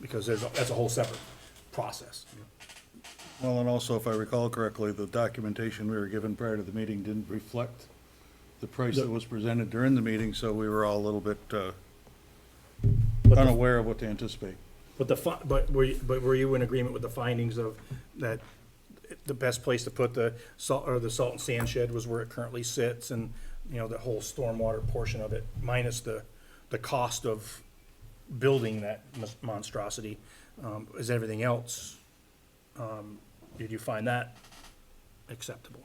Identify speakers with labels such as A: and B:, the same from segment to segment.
A: because there's, a- that's a whole separate process.
B: Well, and also, if I recall correctly, the documentation we were given prior to the meeting didn't reflect the price that was presented during the meeting, so we were all a little bit uh,
A: But the-
B: unaware of what to anticipate.
A: But the, fi- but were, you- but were you in agreement with the findings of that the best place to put the salt, or the salt and sand shed was where it currently sits and, you know, the whole stormwater portion of it, minus the, the cost of building that mon- monstrosity, um, is everything else, um, did you find that acceptable?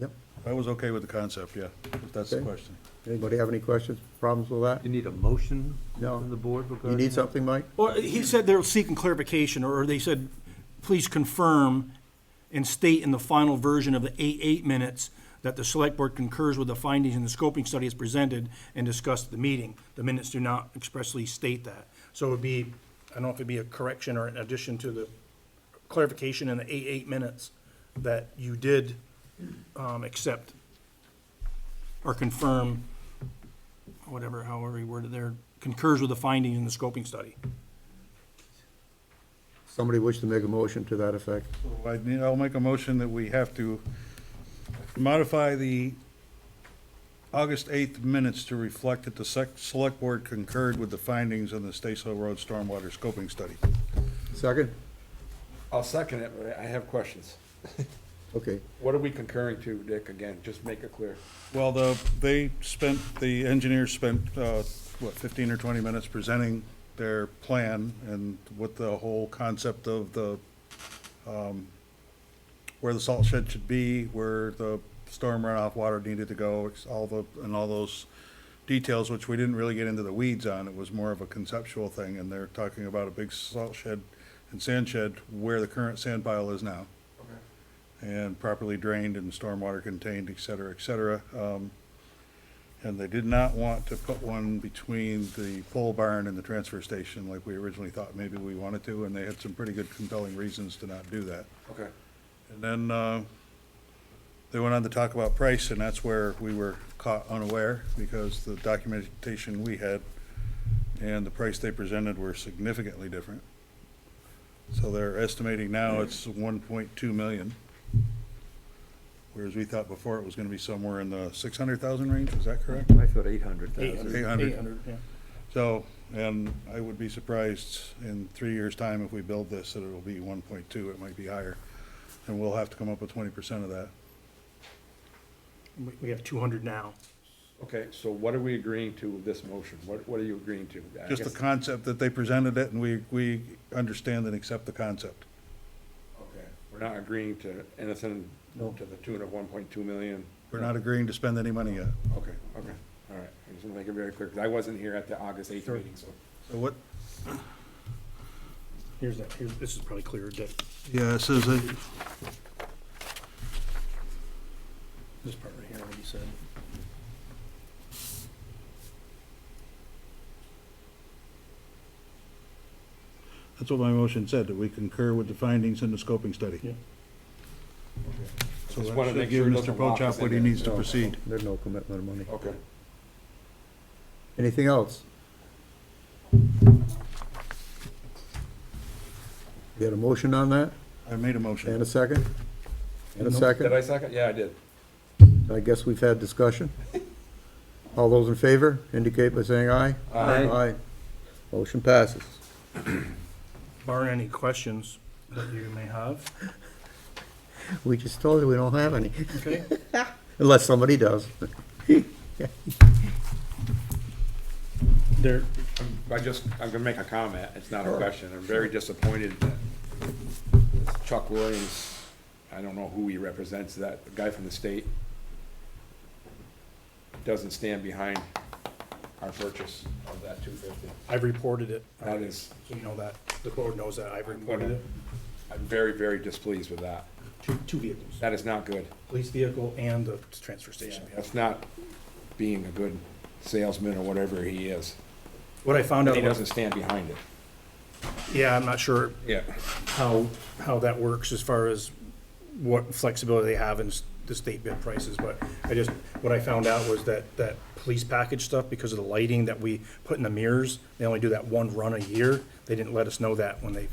C: Yep.
B: I was okay with the concept, yeah, if that's the
C: Okay.
B: question.
C: Anybody have any questions, problems with that?
D: You need a motion
C: No.
D: from the board regarding?
C: You need
D: that?
C: something, Mike?
A: Well, uh, he said they're seeking clarification, or they said, please confirm and state in the final version of the eight, eight minutes that the select board concurs with the findings in the scoping study as presented and discussed at the meeting. The minutes do not expressly state that. So it would be, I don't know if it'd be a correction or an addition to the clarification in the eight, eight minutes that you did, um, accept or confirm, whatever, however you worded there, concurs with the findings in the scoping study.
C: Somebody wish to make a motion to that effect?
B: So I need, I'll make a motion that we have to modify the August 8th minutes to reflect that the sec- select board concurred with the findings in the Stacy Hill Road Stormwater Scoping Study.
C: Second?
E: I'll second it, but I have questions.
C: Okay.
E: What are we concurring to, Dick, again? Just make it clear.
B: Well, the, they spent, the engineers spent, uh, what, 15 or 20 minutes presenting their plan and with the whole concept of the, um, where the salt shed should be, where the storm runoff water needed to go, it's all the, and all those details, which we didn't really get into the weeds on. It was more of a conceptual thing, and they're talking about a big salt shed and sand shed where the current sand pile is now and properly drained and stormwater contained, et cetera, et cetera. Um, And they did not want to put one between the pole barn and the transfer station like we originally thought maybe we wanted to, and they had some pretty good compelling reasons to not do that.
E: Okay.
B: And then, uh, they went on to talk about price, and that's where we were caught unaware, because the documentation we had and the price they presented were significantly different. So they're estimating now it's one point two million. Whereas we thought before it was gonna be somewhere in the six hundred thousand range, is that correct?
D: I thought eight hundred
A: Eight
D: thousand.
A: hundred.
B: Eight hundred.
A: Eight hundred, yeah.
B: So, and I would be surprised in three years' time if we build this, that it'll be one point two, it might be higher. And we'll have to come up with twenty percent of that.
A: We- We have two hundred now.
E: Okay, so what are we agreeing to with this motion? What, what are you agreeing to? I
B: Just the
E: guess-
B: concept that they presented it, and we, we understand and accept the concept.
E: Okay, we're not agreeing to anything to the tune of one point two million?
B: We're not agreeing to spend any money yet.
E: Okay, okay, all right. I just want to make it very clear, because I wasn't here at the August eighth meeting, so.
B: So what?
A: Here's that, here's, this is probably clearer, Dick.
B: Yeah, it says, that-
A: This part right here, what he said.
B: that's what my motion said, that we concur with the findings in the scoping study.
A: Yeah.
B: So
E: Just wanna
B: that should
E: make
B: give
E: sure it
B: Mr.
E: doesn't lock us
B: Pochop what
E: in
B: he
E: there.
B: needs to
C: No,
B: proceed.
C: There's no commitment of money.
E: Okay.
C: Anything else? You had a motion on that?
B: I made a
C: And a
B: motion.
C: second? And a
E: Did I
C: second?
E: second? Yeah, I did.
C: I guess we've had discussion. All those in favor indicate by saying aye.
D: Aye.
C: Aye. Motion passes.
A: Barring any questions that you may have,
C: We just told you we don't have any,
A: okay?
C: unless somebody does.
A: There,
E: I just, I'm gonna make a comment, it's not a question, I'm very disappointed that Chuck Williams, I don't know who he represents, that guy from the state, doesn't stand behind our purchase of that two fifty.
A: I've reported it. Uh,
E: That is,
A: So you know that, the board knows that, I've reported it.
E: I'm very, very displeased with that.
A: Two, two vehicles,
E: That is not good.
A: police vehicle and the transfer station. vehicle.
E: That's not being a good salesman or whatever he is.
A: What I found out,
E: He doesn't stand behind it.
A: yeah, I'm not sure
E: Yeah.
A: how, how that works as far as what flexibility they have in s- the state bid prices, but I just, what I found out was that, that police package stuff, because of the lighting that we put in the mirrors, they only do that one run a year. They didn't let us know that when they